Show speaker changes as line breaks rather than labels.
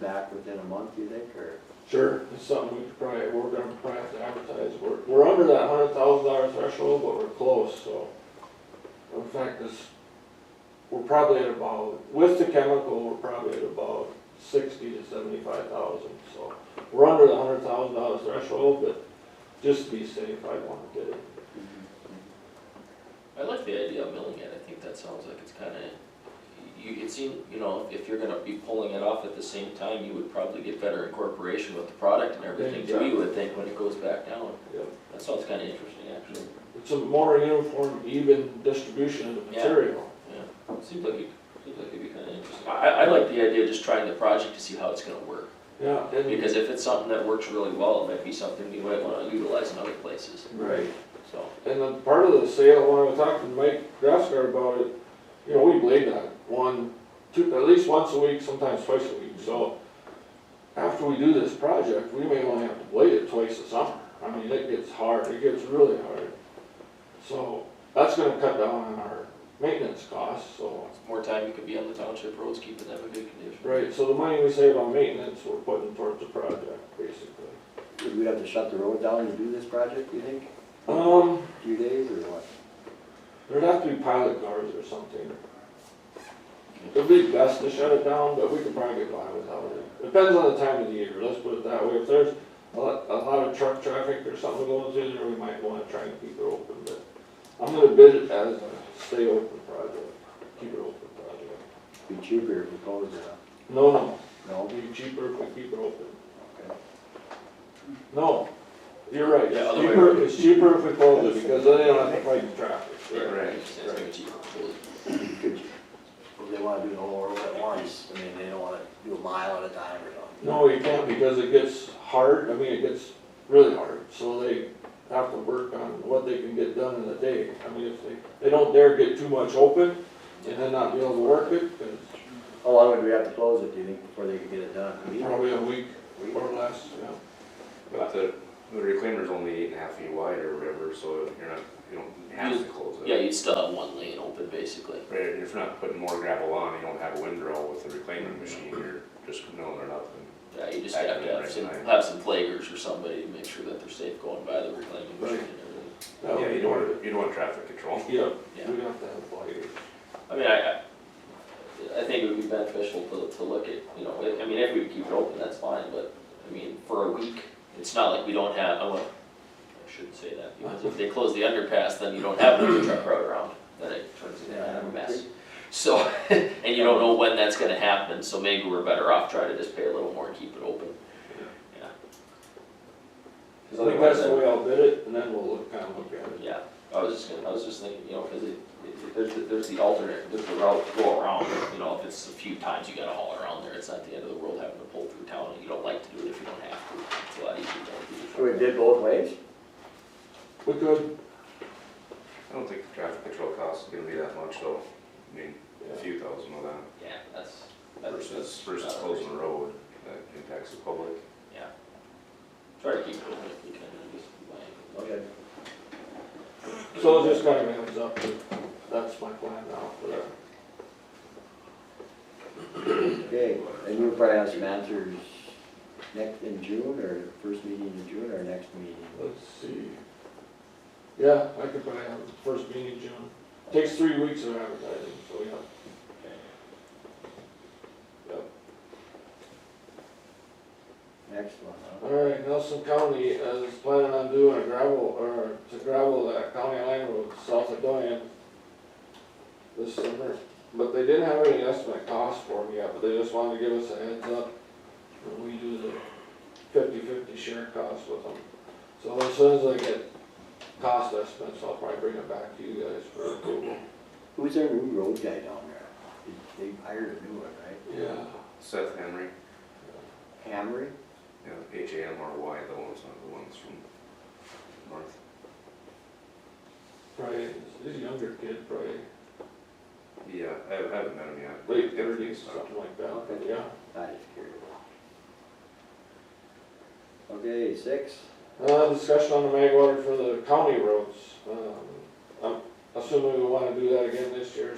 back within a month, you think, or?
Sure, it's something we could probably, we're gonna probably have to advertise, we're, we're under that hundred thousand dollar threshold, but we're close, so. In fact, this, we're probably at about, with the chemical, we're probably at about sixty to seventy-five thousand, so. We're under the hundred thousand dollar threshold, but just to be safe, I wanna get it.
I like the idea of milling it, I think that sounds like it's kinda, you, it seems, you know, if you're gonna be pulling it off at the same time, you would probably get better incorporation with the product and everything too, you would think, when it goes back down.
Yep.
That sounds kinda interesting, actually,
It's a more uniform, even distribution of the
Yeah.
material.
yeah, seems like it, seems like it'd be kinda interesting. I, I I like the idea of just trying the project to see how it's gonna work,
Yeah, and,
because if it's something that works really well, it might be something you might wanna utilize in other places,
right.
so.
And then part of the sale, when I talked to Mike Grassgard about it, you know, we blade that one, two, at least once a week, sometimes twice a week, so. After we do this project, we may only have to blade it twice a summer, I mean, it gets hard, it gets really hard. So, that's gonna cut down on our maintenance costs, so.
More time you could be on the township roads, keeping them in good condition.
Right, so the money we save on maintenance, we're putting towards the project, basically.
Would we have to shut the road down to do this project, you think,
Um,
a few days or what?
There'd have to be pilot cars or something. It'd be best to shut it down, but we could probably get by without it. Depends on the time of the year, let's put it that way. If there's a lot, a lot of truck traffic or something going through there, we might wanna try and keep it open, but I'm gonna bid it as a stay open project, keep it open project.
Be cheaper if we closed it up,
No, no,
no?
it'll be cheaper if we keep it open.
Okay.
No, you're right,
Yeah,
it's
other way
cheaper, it's cheaper if we close it, because then they don't have to fight the traffic.
Right.
Could you- If they wanna do the whole road at once, I mean, they don't wanna do a mile at a time or something.
No, you can't because it gets hard, I mean, it gets really hard, so they have to work on what they can get done in a day. I mean, if they, they don't dare get too much open and then not be able to work it, 'cause
How long Oh, would we have to close it, do you think, before they could get it done? A week?
probably a week
Week?
or less, yeah.
But the, the reclaimer's only eight and a half feet wide or whatever, so you're not, you don't have to close it.
Yeah, you'd still have one lane open, basically.
Right, and if you're not putting more gravel on, you don't have a windrow with the reclaimer machine, you're just milling it up and
Yeah, you just have to have some, have some flaggers or somebody to make sure that they're safe going by the reclaiming machine and everything.
That would
Yeah, you
be
don't
hard.
want, you don't want traffic control.
Yeah,
Yeah.
we'd have to have lighters.
I mean, I, I- I think it would be beneficial to, to look at, you know, I I mean, if we keep it open, that's fine, but, I mean, for a week, it's not like we don't have, I want, I shouldn't say that, because if they close the underpass, then you don't have another truck route around, then it turns into a mess. So, and you don't know when that's gonna happen, so maybe we're better off trying to just pay a little more and keep it open.
I
Yeah. 'Cause
think
otherwise,
that's the way I'll bid it, and then we'll look, kinda look at it.
yeah, I was just gonna, I was just thinking, you know, cause it, it- there's, the- there's the alternate, there's the route to go around, you know, if it's a few times you gotta haul around there, it's not the end of the world having to pull through town, and you don't like to do it if you don't have to, it's a lot easier to
So
do
we did both ways?
We could,
I don't think the traffic control cost is gonna be that much though, I mean, a
yeah.
few thousand of that
Yeah, that's, that's.
versus,
that's
versus
not a
closing
reason.
the road, that impacts the public.
Yeah. Try to keep it open if we can, I guess, my,
Okay.
so just kinda hands up, that's my plan now uh, for that.
Okay, and you'll probably have some answers next, in June, or first meeting in June, or next meeting?
Let's see. Yeah, I could probably have the first meeting in June. Takes three weeks of advertising, so yeah.
Next one, huh?
All right, Nelson County is planning on doing a gravel, or to gravel that county line road south of Doan this summer. But they didn't have any estimate cost for them yet, but they just wanted to give us a heads up when we do the fifty-fifty share cost with them. So as soon as I get cost estimates, I'll probably bring it back to you guys for approval.
Who's their new road guy down there? They they hired a new one, right?
Yeah.
Seth Henry,
Hamry?
you know, H A M R Y, the ones, not the ones from north.
Probably, he's a younger kid, probably
Yeah, I I haven't met him yet.
late
Yeah,
thirties,
so.
something like that, but yeah.
I just curious. Okay, six,
Uh, discussion on the mag order for the county roads, um, I'm assuming we wanna do that again this year,